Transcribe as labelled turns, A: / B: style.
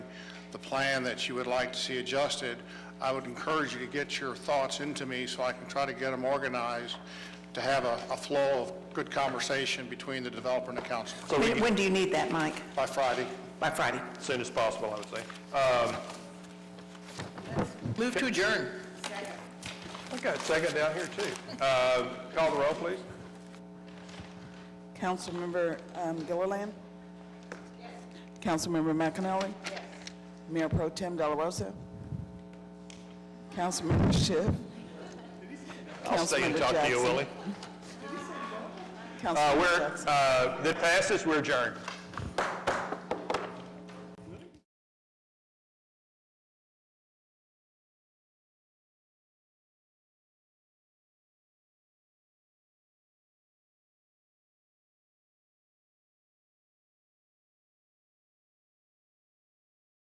A: the plan that you would like to see adjusted, I would encourage you to get your thoughts into me so I can try to get them organized, to have a a flow of good conversation between the developer and the council
B: When when do you need that, Mike?
A: by Friday.
B: By Friday?
C: Soon as possible, I would say. Um,
B: Move to adjourn.
C: I got a second down here, too. Uh, Call the roll, please.
D: Councilmember um, Gilliland? Yes. Councilmember McAnally? Yes. Mayor Pro Tem Delarosa? Councilmember Schiff?
C: I'll stay and talk to you, Willie.
D: Councilmember
C: Uh, We're,
D: Jackson.
C: uh, that passes, we're adjourned.